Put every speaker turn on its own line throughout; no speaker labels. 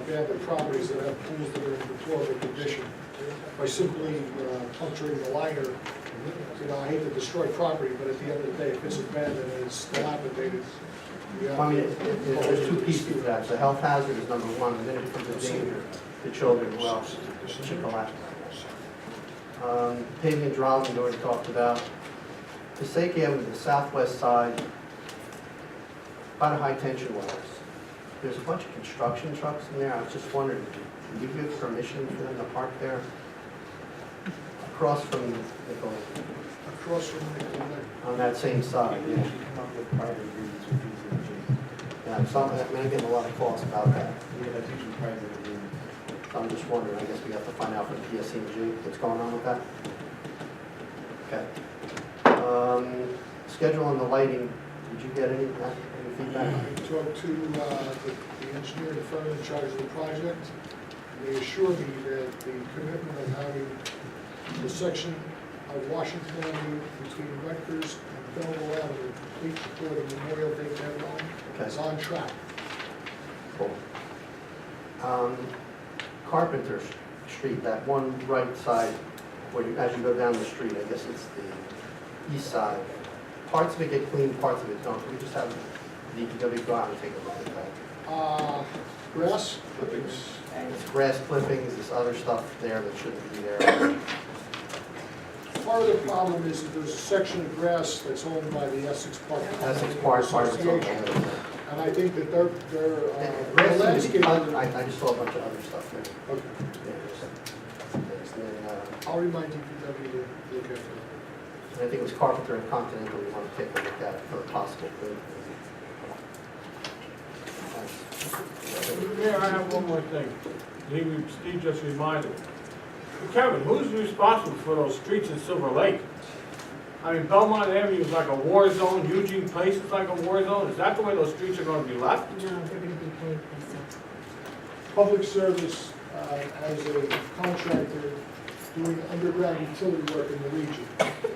abandoned properties that have pools that are in deplorable condition. By simply uh, puncturing the liner, you know, I hate to destroy property, but at the end of the day, if it's abandoned and it's dilapidated, you have to...
I mean, it- it- there's two pieces to that, the health hazard is number one, and then it becomes a danger to children, who else should collapse. Um, Paving and driving, we already talked about. Passaic Avenue, the southwest side, by the high-tension wires, there's a bunch of construction trucks in there, I was just wondering, do you give permission for them to park there? Across from Nicole,
Across from the uh, lake.
on that same side, yeah.
come up with private agreements with these agents.
Yeah, so I'm, I'm getting a lot of calls about that.
Yeah, that's usually private agreements.
I'm just wondering, I guess we have to find out from PSCNG what's going on with that. Okay. Um, Schedule and the lighting, did you get any, uh, any feedback?
I talked to uh, the- the engineer, the firm in charge of the project, and they assured me that the commitment of having the section of Washington Avenue between Rutgers and Belleville Avenue complete before the Memorial Day deadline
Okay.
is on track.
Cool. Um, Carpenter S- Street, that one right side, where you, as you go down the street, I guess it's the east side. Parts of it get cleaned, parts of it don't. Can we just have DPW go out and take a look at that?
Uh, Grass clippings,
It's grass clippings, this other stuff there that shouldn't be there.
part of the problem is that there's a section of grass that's owned by the Essex Park.
Essex Park, part of it's all
Association,
over.
And I think that their, their uh, their
Grass seems
landscape.
to be- I, I just saw a bunch of other stuff there.
Okay.
Yeah, there's- there's the, uh,
I'll remind DPW to look after that.
And I think it was Carpenter and Continental we want to take a look at for a possible bid.
Mayor, I have one more thing. Lee, Steve just reminded me. Kevin, who's responsible for those streets in Silver Lake? I mean, Belmont Avenue is like a war zone, Eugene Place is like a war zone. Is that the way those streets are gonna be left?
No, they're gonna be paid by
Public service uh, as a contractor doing underground utility work in the region.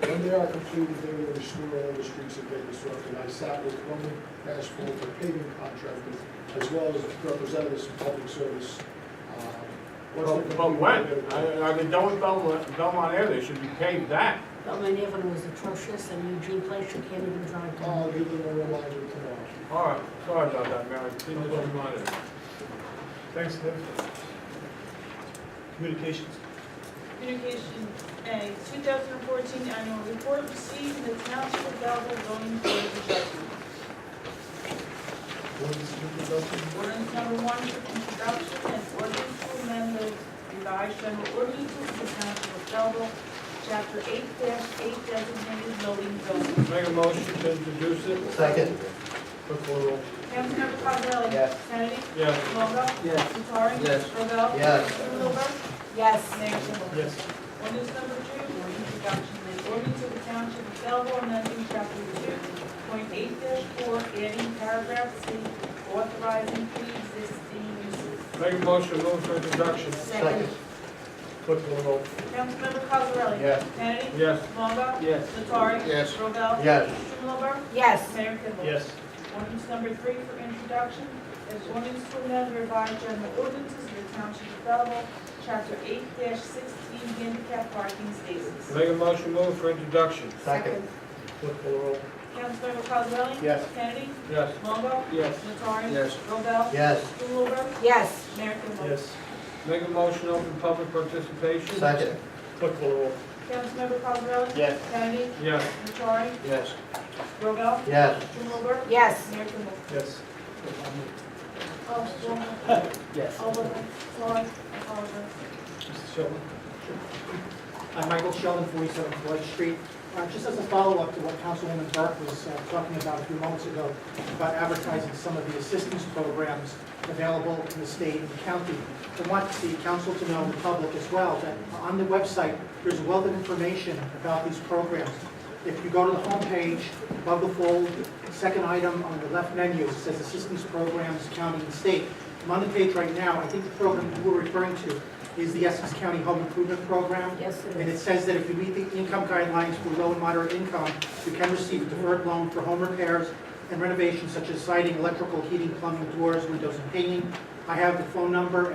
When they are completed, they will restore all the streets that they disrupted. I sat with Roman Asphalt, the paving contractors, as well as representatives from public service. uh, once they're
But but
completed,
when?
they're-
Are are they done with Belmont, Belmont Avenue? They should be paved that.
But my Avenue was atrocious, and Eugene Place, you can't even drive down.
I'll Uh, give them a reminder tomorrow.
All right, sorry about that, Mayor. Steve just reminded me.
Thanks, Liv. Communications.
Communication A, 2014 annual report received in the Township of Belleville zoning board of adjustment.
Ordinance introduction.
Ordinance number one for introduction and ordinance to amend the revised general ordinances of the Township of Belleville, Chapter 8-8 designated building zones.
Make a motion to introduce it.
Second,
Clerk call the roll.
Councilmember Cosrally?
Yes.
Kennedy?
Yes.
Longo?
Yes.
Nattari?
Yes.
Robel?
Yes.
Trudeau?
Yes.
Mayor Kimball?
Yes.
Ordinance number two, for introduction, an ordinance of the Township of Belleville amending chapter two point eight four, adding paragraph C, authorizing pre-existing uses.
Make a motion to move for introduction.
second,
Clerk call the roll.
Councilmember Cosarelli?
Yes.
Kennedy?
Yes.
Longo?
Yes.
Nattari?
Yes.
Robel?
yes.
Strumelberg?
Yes.
Mayor Kimball?
Yes.
Ordinance number three for introduction is ordinance to amend the revised general ordinances of the Township of Belleville, chapter eight sixteen, handicap parking spaces.
Make a motion to move for introduction.
Second,
Clerk call the roll.
Councilmember Cosarelli?
Yes.
Kennedy?
Yes.
Longo?
Yes.
Nattari?
Yes.
Robel?
yes.
Strumelberg?
Yes.
Mayor Kimball?
Yes.
Make a motion to open public participation.
Second,
Clerk call the roll.
Councilmember Cosarelli?
Yes.
Kennedy?
Yes.
Nattari?
Yes.
Robel?
yes.
Strumelberg?
Yes.
Mayor Kimball?
Yes.
Oh, Strumelberg.
Yes.
Oh, Wilson. Sorry, I apologize.
Mr. Sheldon.
I'm Michael Sheldon, 47 Floyd Street. Uh, Just as a follow-up to what Councilwoman Burke was uh, talking about a few moments ago, about advertising some of the assistance programs available in the state and county. I want the council to know, and the public as well, that on the website, there's a wealth of information about these programs. If you go to the homepage, above the fold, second item on the left menu, it says Assistance Programs, County and State. I'm on the page right now, I think the program you were referring to is the Essex County Home Improvement Program.
Yes, it
And it
is.
says that if you meet the income guidelines for low and moderate income, you can receive a deferred loan for home repairs and renovations such as siding, electrical, heating, plumbing, doors, windows, and painting. I have the phone number